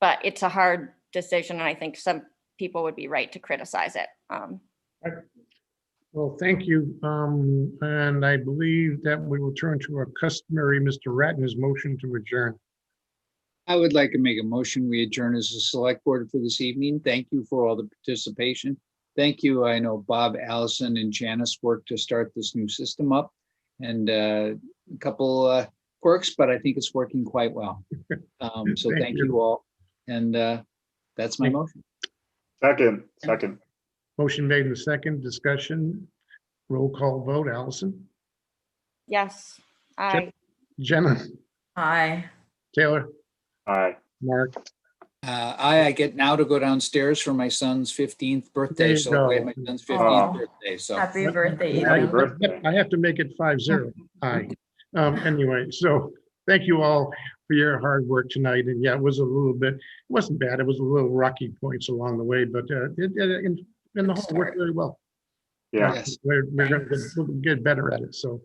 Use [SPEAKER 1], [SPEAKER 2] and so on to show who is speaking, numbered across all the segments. [SPEAKER 1] But it's a hard decision, and I think some people would be right to criticize it. Um,
[SPEAKER 2] Well, thank you. Um, and I believe that we will turn to our customary Mr. Ratner's motion to adjourn.
[SPEAKER 3] I would like to make a motion. We adjourn as a select board for this evening. Thank you for all the participation. Thank you. I know Bob, Allison and Janice worked to start this new system up and uh, a couple uh, quirks, but I think it's working quite well. Um, So
[SPEAKER 2] Thank
[SPEAKER 3] thank
[SPEAKER 2] you.
[SPEAKER 3] you all. And uh, that's my
[SPEAKER 2] Thank-
[SPEAKER 3] motion.
[SPEAKER 4] Second, second,
[SPEAKER 2] Motion made in the second discussion. Roll call vote. Allison,
[SPEAKER 1] yes, I,
[SPEAKER 2] Jenna,
[SPEAKER 5] Aye.
[SPEAKER 2] Taylor,
[SPEAKER 4] aye.
[SPEAKER 2] Mark.
[SPEAKER 3] Uh, I, I get now to go downstairs for my son's 15th birthday.
[SPEAKER 2] you
[SPEAKER 3] So we had my
[SPEAKER 2] go.
[SPEAKER 3] son's
[SPEAKER 4] Oh.
[SPEAKER 3] 15th birthday. So.
[SPEAKER 5] Happy birthday,
[SPEAKER 4] Happy
[SPEAKER 5] Ethan.
[SPEAKER 4] birthday.
[SPEAKER 2] I have to make it five zero. Aye. Um, anyway, so thank you all for your hard work tonight. And yeah, it was a little bit, it wasn't bad. It was a little rocky points along the way, but uh, it, it, and- and the
[SPEAKER 1] Good
[SPEAKER 2] whole worked
[SPEAKER 1] start.
[SPEAKER 2] very well.
[SPEAKER 4] Yeah,
[SPEAKER 3] Yes.
[SPEAKER 2] We're, we're gonna get- we'll get better at it. So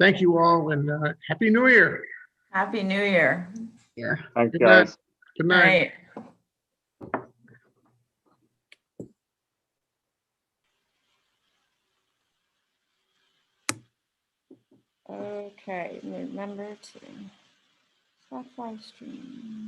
[SPEAKER 2] thank you all and, uh, happy new year.
[SPEAKER 5] Happy New Year.
[SPEAKER 4] thanks,
[SPEAKER 2] Good night.
[SPEAKER 4] guys.
[SPEAKER 2] Good night.
[SPEAKER 5] Night.
[SPEAKER 1] okay, remember to. Stop live stream.